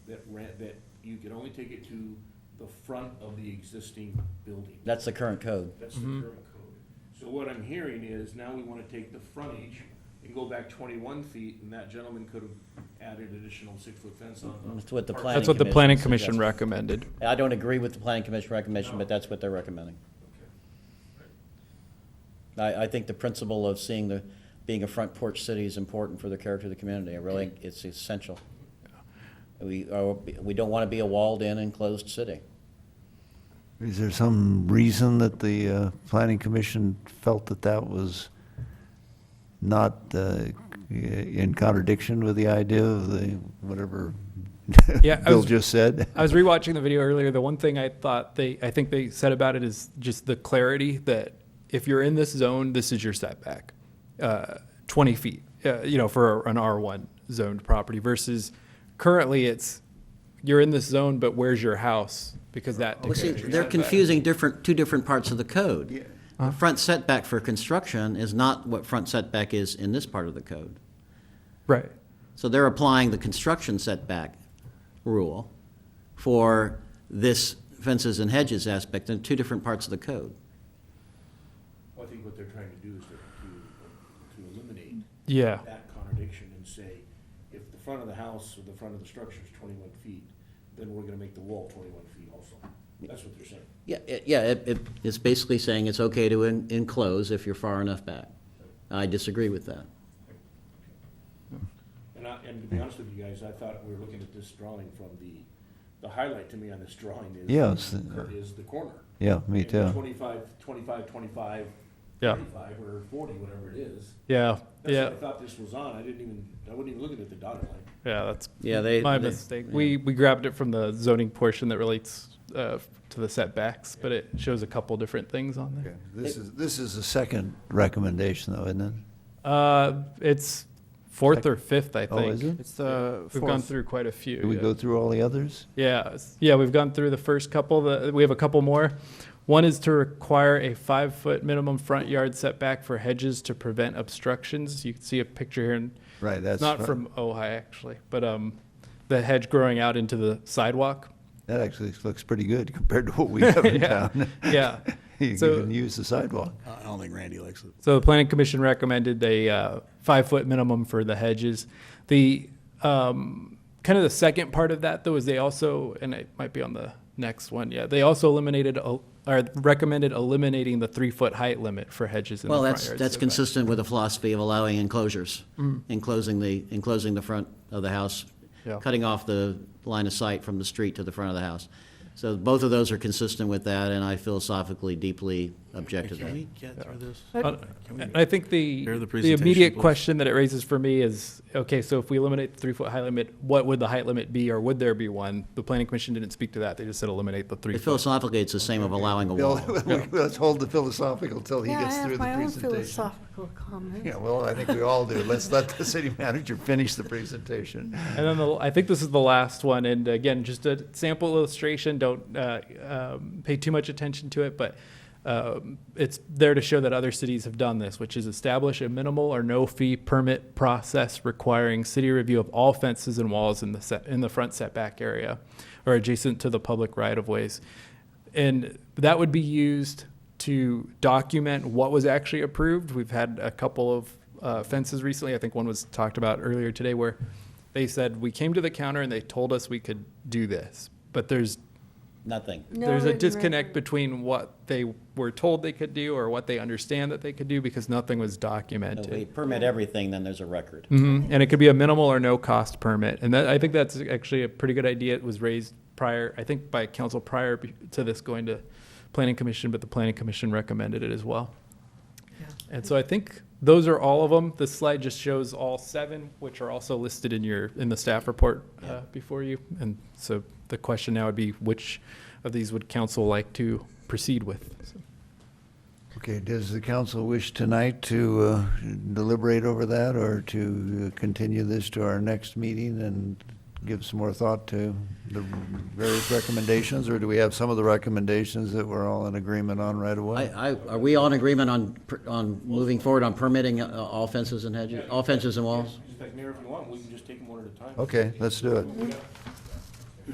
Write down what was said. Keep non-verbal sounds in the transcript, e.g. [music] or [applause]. ran, that you could only take it to the front of the existing building. That's the current code. That's the current code. So what I'm hearing is now we wanna take the frontage and go back twenty-one feet, and that gentleman could have added additional six-foot fence on the. That's what the planning. That's what the planning commission suggested. recommended. I don't agree with the planning commission recommendation, but that's what they're recommending. I, I think the principle of seeing the, being a front porch city is important for the character of the community. I really, it's essential. We, are- we don't want to be a walled-in enclosed city. Is there some reason that the uh, planning commission felt that that was not uh, in contradiction with the idea of the, whatever Yeah, I Bill was- just said? [laughs] I was rewatching the video earlier. The one thing I thought they, I think they said about it is just the clarity that if you're in this zone, this is your setback, uh, 20 feet, uh, you know, for an R1 zoned property versus currently it's you're in this zone, but where's your house? Because that Well, see, dictates your they're setback. confusing different, two different parts of the code. The front setback for construction is not what front setback is in this part of the code. Right. So they're applying the construction setback rule for this fences and hedges aspect in two different parts of the code. I think what they're trying to do is to, to eliminate Yeah. that contradiction and say, if the front of the house or the front of the structure is twenty-one feet, then we're gonna make the wall twenty-one feet also. That's what they're saying. Yeah, it- yeah, it, it- it's basically saying it's okay to en- enclose if you're far enough back. I disagree with that. And I, and to be honest with you guys, I thought we were looking at this drawing from the, the highlight to me on this drawing is. Yes. Is the corner. Yeah, me You know, too. 25, 25, 25, Yeah. 35, or forty, whatever it is. Yeah. That's yeah. what I thought this was on. I didn't even, I wasn't even looking at the dotted line. Yeah, that's Yeah, they- my they- mistake. We we grabbed it from the zoning portion that relates uh, to the setbacks, but it shows a couple different things on there. This is, this is the second recommendation though, isn't it? Uh, it's fourth or fifth, I think. uh, Oh, is it? It's the We've gone fourth. through quite a few. Did we yeah. go through all the others? Yeah, s- yeah, we've gone through the first couple. The, we have a couple more. One is to require a five-foot minimum front yard setback for hedges to prevent obstructions. You can see a picture here, and Right, that's. not from Ojai actually, but um, the hedge growing out into the sidewalk. That actually looks pretty good [laughs] compared to what we have [laughs] in Yeah, town. [laughs] yeah. You So- can use the sidewalk. I don't think Randy likes it. So the planning commission recommended a uh, five foot minimum for the hedges. The um, kind of the second part of that though is they also, and it might be on the next one. Yeah, they also eliminated el- or recommended eliminating the three foot height limit for hedges. In Well, the that's, front yard that's setback. consistent with the philosophy of allowing enclosures, enclosing the, enclosing the front of the house, Yeah. cutting off the line of sight from the street to the front of the house. So both of those are consistent with that, and I philosophically deeply object to Can that. we get through this? Uh, and I think the Hear the the presentation, immediate please. question that it raises for me is okay. So if we eliminate the three foot height limit, what would the height limit be, or would there be one? The planning commission didn't speak to that. They just said eliminate the three. foot. Philosophically, it's the same of allowing a Bill, wall. Oh, [laughs] let's hold the philosophical till he Yeah, gets I through the have my own presentation. philosophical comments. Yeah, well, I think we all do. Let's let the city manager finish the presentation. And then the, I think this is the last one. And again, just a sample illustration. Don't uh, um, pay too much attention to it, but um, it's there to show that other cities have done this, which is establish a minimal or no fee permit process requiring city review of all fences and walls in the set, in the front setback area or adjacent to the public right of ways. And that would be used to document what was actually approved. We've had a couple of uh, fences recently. I think one was talked about earlier today where they said we came to the counter and they told us we could do this, but there's Nothing. No there's a written disconnect record. between what they were told they could do or what they understand that they could do because nothing was No, documented. we permit everything, then there's a record. Mhm. And it could be a minimal or no cost permit. And that, I think that's actually a pretty good idea. It was raised prior, I think by council prior be- to this going to planning commission, but the planning commission recommended it as well. And so I think those are all of them. This slide just shows all seven, which are also listed in your, in the staff report uh, before you. And so the question now would be which of these would council like to proceed with? So- Okay, does the council wish tonight to uh, deliberate over that or to uh, continue this to our next meeting and give some more thought to the various recommendations? Or do we have some of the recommendations that we're all in agreement on right away? I, I, are we all in agreement on, per- on moving forward on permitting uh, all fences and hedges, all fences and walls? Just like, Mayor, if you want, we can just take them one at a time. Okay, let's do it. We got-